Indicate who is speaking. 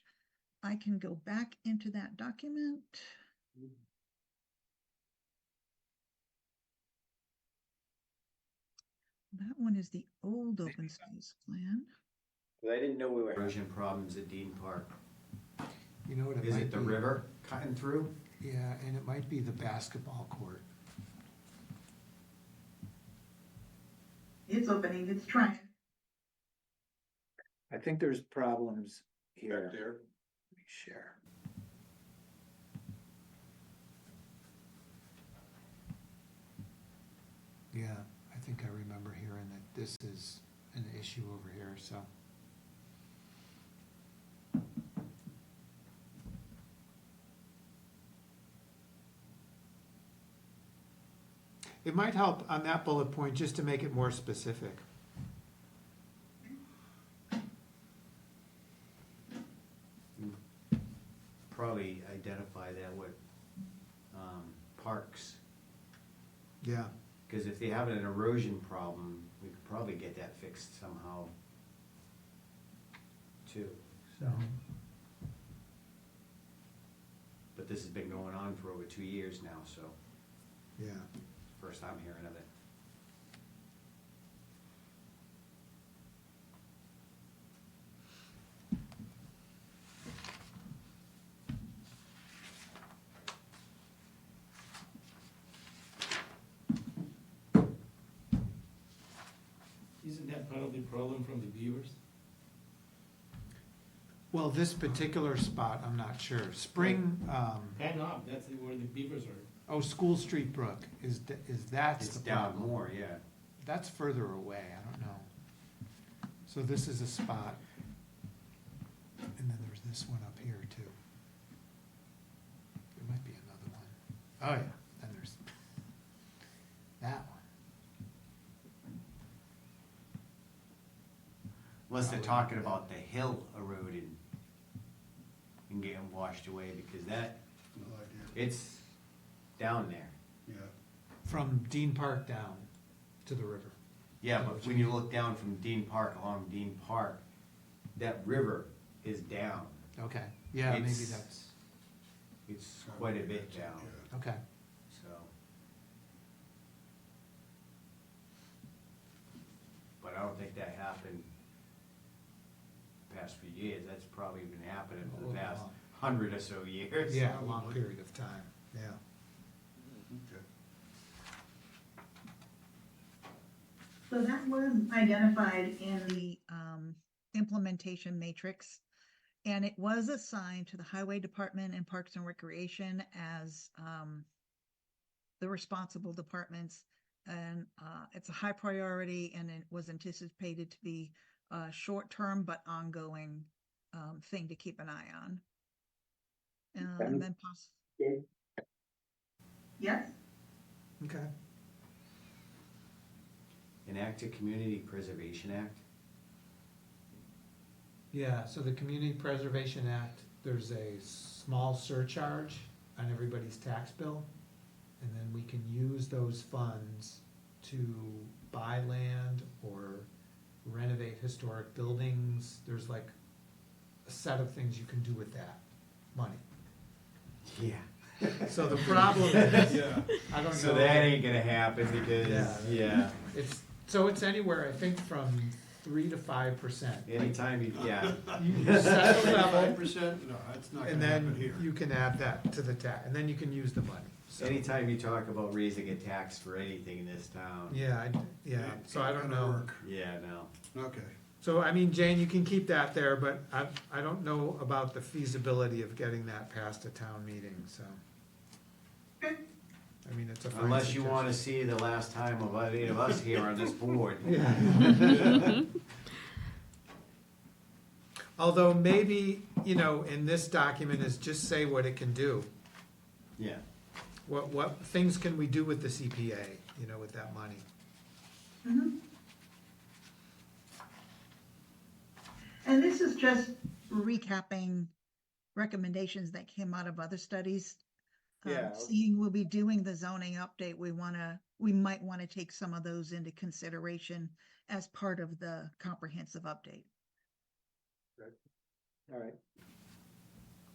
Speaker 1: I can go back into that document. That one is the old open space plan.
Speaker 2: Because I didn't know we were. Erosion problems at Dean Park.
Speaker 3: You know what it
Speaker 2: Is
Speaker 3: might
Speaker 2: it the
Speaker 3: be?
Speaker 2: river cutting through?
Speaker 3: Yeah, and it might be the basketball court.
Speaker 1: It's opening, it's trying.
Speaker 4: I think there's problems here.
Speaker 5: back there.
Speaker 4: Let me Share.
Speaker 3: Yeah, I think I remember hearing that this is an issue over here, so. It might help on that bullet point, just to make it more specific.
Speaker 2: Probably identify that with, um, parks.
Speaker 3: Yeah.
Speaker 2: Because if they have an erosion problem, we could probably get that fixed somehow. Too, so, but this has been going on for over two years now, so
Speaker 3: Yeah.
Speaker 2: first I'm hearing of it.
Speaker 5: Isn't that part of the problem from the viewers?
Speaker 3: Well, this particular spot, I'm not sure. Spring, um,
Speaker 5: Head up, that's where the beavers are.
Speaker 3: oh, School Street Brook is, th- is that's
Speaker 2: It's
Speaker 3: the
Speaker 2: down
Speaker 3: problem.
Speaker 2: more, yeah.
Speaker 3: That's further away, I don't know. So this is a spot. And then there's this one up here too. There might be another one. Oh yeah, then there's that one.
Speaker 2: Unless they're
Speaker 3: Probably.
Speaker 2: talking about the hill eroding and getting washed away, because that,
Speaker 6: No idea,
Speaker 2: it's down there.
Speaker 6: yeah.
Speaker 3: From Dean Park down to the river.
Speaker 2: Yeah, but when you look down from Dean Park along Dean Park, that river is down.
Speaker 3: Okay, yeah, maybe
Speaker 2: It's-
Speaker 3: that's,
Speaker 2: It's quite a bit down,
Speaker 6: Yeah.
Speaker 3: okay.
Speaker 2: so. But I don't think that happened past few years. That's probably been happening for the past hundred or so years.
Speaker 3: Yeah, a long period of time, yeah.
Speaker 6: Okay.
Speaker 1: So that was identified in the um implementation matrix. And it was assigned to the Highway Department and Parks and Recreation as um the responsible departments. And uh it's a high priority and it was anticipated to be a short-term but ongoing um thing to keep an eye on. Uh,
Speaker 4: Okay.
Speaker 1: And then poss-
Speaker 4: Okay.
Speaker 1: Yes?
Speaker 3: Okay.
Speaker 2: Enact a Community Preservation Act.
Speaker 3: Yeah, so the Community Preservation Act, there's a small surcharge on everybody's tax bill. And then we can use those funds to buy land or renovate historic buildings. There's like a set of things you can do with that money.
Speaker 2: Yeah.
Speaker 3: So the problem is,
Speaker 5: Yeah.
Speaker 3: I don't know.
Speaker 2: So that ain't gonna happen because,
Speaker 3: Yeah.
Speaker 2: yeah,
Speaker 3: It's, so it's anywhere, I think, from three to five percent.
Speaker 2: anytime you, yeah.
Speaker 3: You set a level,
Speaker 6: Five percent, no, that's not
Speaker 3: And
Speaker 6: gonna happen
Speaker 3: then
Speaker 6: here.
Speaker 3: you can add that to the tax, and then you can use the money, so.
Speaker 2: Anytime you talk about raising a tax for anything in this town,
Speaker 3: Yeah, I, yeah,
Speaker 6: Ain't
Speaker 3: so I don't
Speaker 6: gonna
Speaker 3: know.
Speaker 6: work.
Speaker 2: yeah, no.
Speaker 6: Okay,
Speaker 3: So I mean, Jane, you can keep that there, but I, I don't know about the feasibility of getting that past a town meeting, so. I mean, it's a. fine
Speaker 2: Unless you wanna
Speaker 3: suggestion.
Speaker 2: see the last time of any of us here on this board.
Speaker 3: Although maybe, you know, in this document is just say what it can do.
Speaker 2: Yeah,
Speaker 3: What, what things can we do with the CPA, you know, with that money?
Speaker 1: And this is just recapping recommendations that came out of other studies. Um,
Speaker 4: Yeah.
Speaker 1: Seeing we'll be doing the zoning update, we wanna, we might wanna take some of those into consideration as part of the comprehensive update.
Speaker 4: All right.